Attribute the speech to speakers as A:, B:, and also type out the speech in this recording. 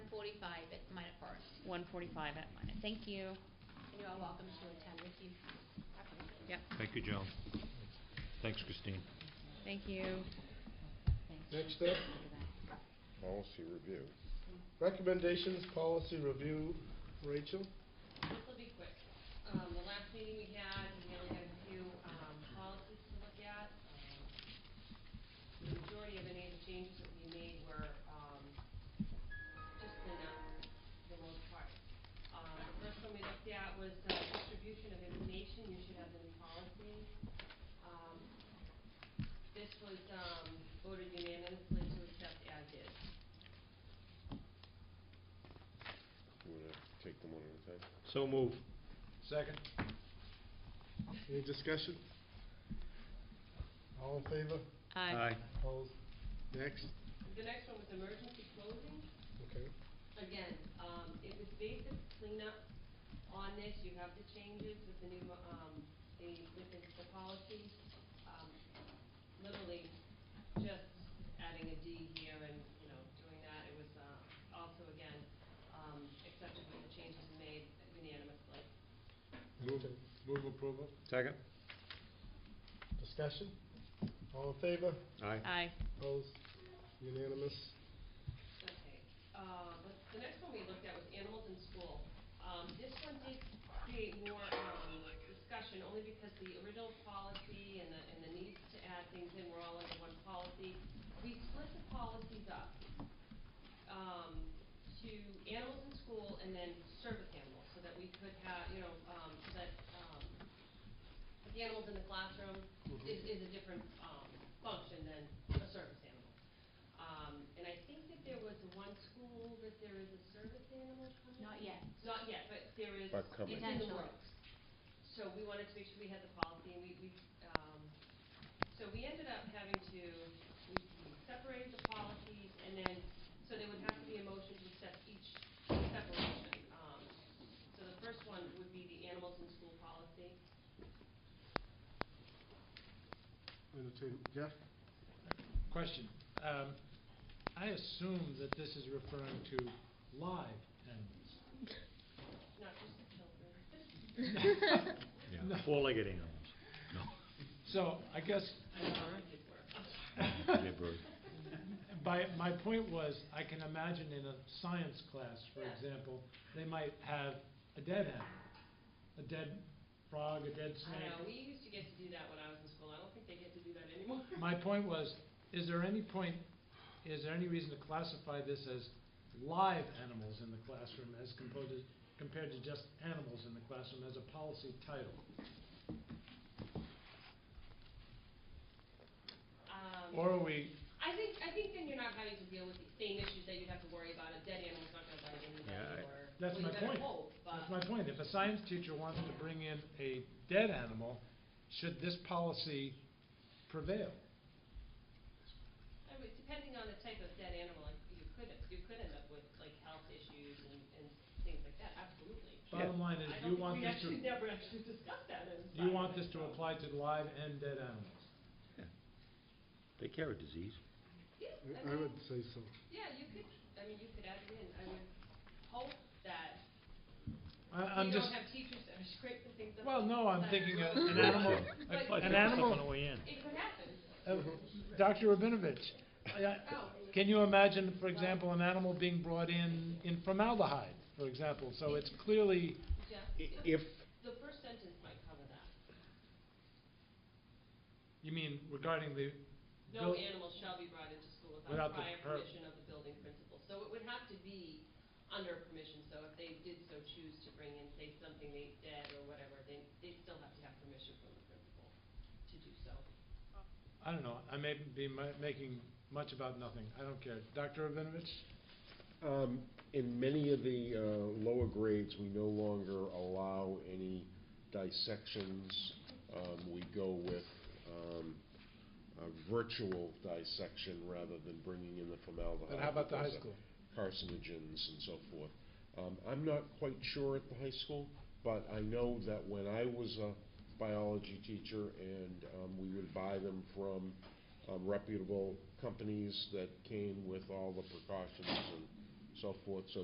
A: forty-five at Minot Forest.
B: one forty-five at mine. Thank you.
A: And you're all welcome to attend if you have any.
B: Yep,
C: Thank you, Joan. Thanks, Christine.
B: thank you.
D: Next up,
E: Policy review.
D: recommendations, policy review, Rachel?
F: This will be quick. Um, the last meeting we had, we only had a few, um, policies to look at. Um, The majority of any of the changes that we made were, um, just the, not- the most part. Um, the first one we looked at was the distribution of information, you should have the new policy. Um, this was, um, voted unanimously to accept as is.
E: You wanna take them one at a time?
C: So move.
D: Second. Any discussion? All in favor?
B: Aye.
D: Opposed? Next,
F: The next one was emergency closing.
D: okay.
F: again, um, it was basic cleanup on this, you have the changes with the new, um, the, with the, the policy, um, literally just adding a D here and, you know, doing that, it was, uh, also again, um, accepted with the changes made unanimously.
D: Move, move approval.
C: Second?
D: Discussion? All in favor?
C: Aye.
B: Aye.
D: Opposed? Unanimous?
F: Okay, uh, the, the next one we looked at was animals in school. Um, this one did create more, um, discussion, only because the original policy and the, and the needs to add things in were all under one policy. We split the policies up, um, to animals in school and then service animals, so that we could have, you know, um, so that, um, the animals in the classroom is, is a different, um, function than a service animal. Um, and I think that there was one school that there is a service animal coming?
A: Not yet.
F: Not yet, but there is,
E: But coming.
F: it's in the
A: Potential.
F: works. So we wanted to make sure we had the policy, and we, we, um, so we ended up having to, we we separated the policies, and then, so there would have to be a motion to accept each separation. Um, So the first one would be the animals in school policy.
D: Entertain, Jeff?
G: Question. Um, I assume that this is referring to live animals.
F: Not just the children.
C: Yeah. Four-legged animals.
G: So I guess
F: I don't know if it worked.
C: Yeah, bird.
G: by, my point was, I can imagine in a science class, for
F: Yeah.
G: example, they might have a dead animal, a dead frog, a dead
F: I know,
G: snake.
F: we used to get to do that when I was in school. I don't think they get to do that anymore.
G: My point was, is there any point, is there any reason to classify this as live animals in the classroom as composed, compared to just animals in the classroom as a policy title?
F: Um,
G: Or are we
F: I think, I think then you're not having to deal with the same issues that you'd have to worry about, a dead animal's not gonna bite anybody,
C: Yeah, I-
F: or, well,
G: That's
F: you
G: my
F: better
G: point.
F: hope,
G: That's
F: but,
G: my point, if a science teacher wants to bring in a dead animal, should this policy prevail?
F: I mean, depending on the type of dead animal, like, you could, you could end up with, like, health issues and, and things like that, absolutely.
G: Bottom line is, you want this
F: I
G: to,
F: don't think we actually never actually discussed that in
G: you want this to
F: science, so-
G: apply to live and dead animals.
C: They carry disease.
F: Yeah, I
D: I
F: mean,
D: would say so.
F: yeah, you could, I mean, you could add it in, I would hope that
G: I, I'm
F: you
G: just,
F: don't have teachers that are scraping things up.
G: well, no, I'm
F: Like-
G: thinking a- an animal,
F: But-
G: a- an animal,
F: It could happen,
G: uh,
D: Mm-hmm.
G: Dr. Rabinovich, I- I-
F: oh,
G: Can you imagine, for example, an animal being brought in, in formaldehyde, for example, so it's clearly,
F: yeah,
C: If,
F: the first sentence might cover that.
G: you mean regarding the
F: No
G: Bill-
F: animal shall be brought into school
G: Without
F: without
G: the per-
F: prior permission of the building principal. So it would have to be under permission, so if they did so choose to bring in, say, something they dead or whatever, then they still have to have permission from the principal to do so.
G: I don't know, I may be ma- making much about nothing, I don't care. Dr. Rabinovich?
E: Um, in many of the, uh, lower grades, we no longer allow any dissections. Um, we go with, um, a virtual dissection rather than bringing in the formaldehyde.
G: But how about the high
E: because of
G: school?
E: Carcinogens and so forth. Um, I'm not quite sure at the high school, but I know that when I was a biology teacher and, um, we would buy them from, um, reputable companies that came with all the precautions and so forth, so